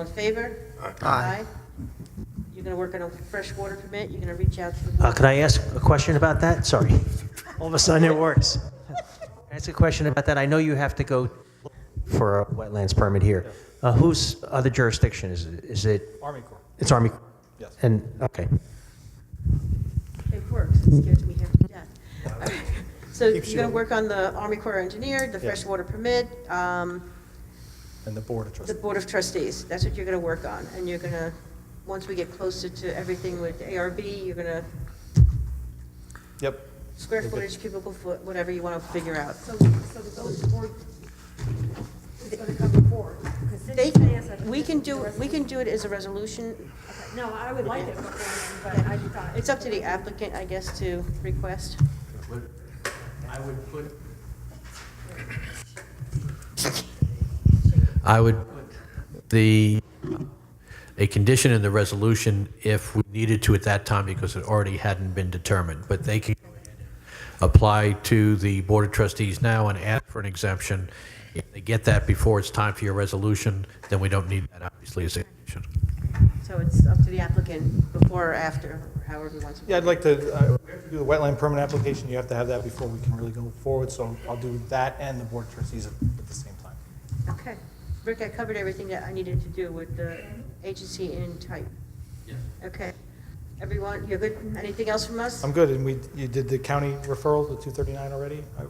in favor? Aye. You're gonna work on a freshwater permit, you're gonna reach out to the Uh, board? Could I ask a question about that? Sorry. All of a sudden, it works. Can I Ask a question about that. I know you have to go for a wetlands permit here. Uh, Whose other jurisdiction is it? Is it? Army Corps. It's Army? Yes. And, okay. It works, it scares me half to death. All right. So you're gonna work on the Army Corps of Engineer, the freshwater permit, um, and the Board of the Trustees. Board of Trustees, that's what you're gonna work on, and you're gonna, once we get closer to everything with ARB, you're gonna Yep. square footage, cubicle foot, whatever you wanna figure out. So, so the village board is gonna come before, because They, Cindy can answer. we can do, we can do it as a resolution, No, I would like it before, then, but I thought. it's up to the applicant, I guess, to request. But I would put. I would put the, a condition in the resolution if we needed to at that time because it already hadn't been determined. But they can apply to the Board of Trustees now and ask for an exemption. If they get that before it's time for your resolution, then we don't need that, obviously, as a condition. So it's up to the applicant before or after, however he wants. Yeah, I'd like to, uh, we have to do the wetland permit application, you have to have that before we can really go forward, so I'll do that and the Board of Trustees at the same time. Okay. Rick, I covered everything that I needed to do with the agency and type. Okay. Everyone, you're good? Anything else from us? I'm good, and we, you did the county referral, the 239 already? I-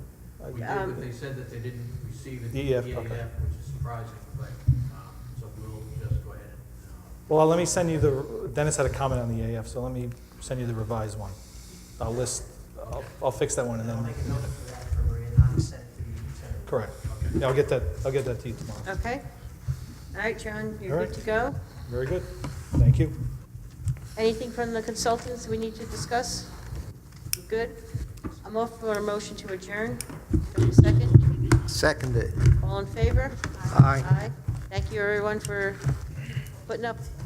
I- We did, Um, but they said that they didn't receive E it. EF, EAF, okay. Which is surprising, but, um, so we'll just go ahead and, um, Well, let me send you the, Dennis had a comment on the AF, so let me send you the revised one. I'll list, I'll- I'll fix that one and I'll then, make a note for that for Maria, not to send it to you. Senator. correct. Yeah, I'll get that, I'll get that to you tomorrow. Okay. All right, John, you're All good right. to go. Very good, thank you. Anything from the consultants we need to discuss? You Good? I'm off for a motion to adjourn. Give me a second. Seconded. All in favor? Aye. Thank you, everyone, for putting up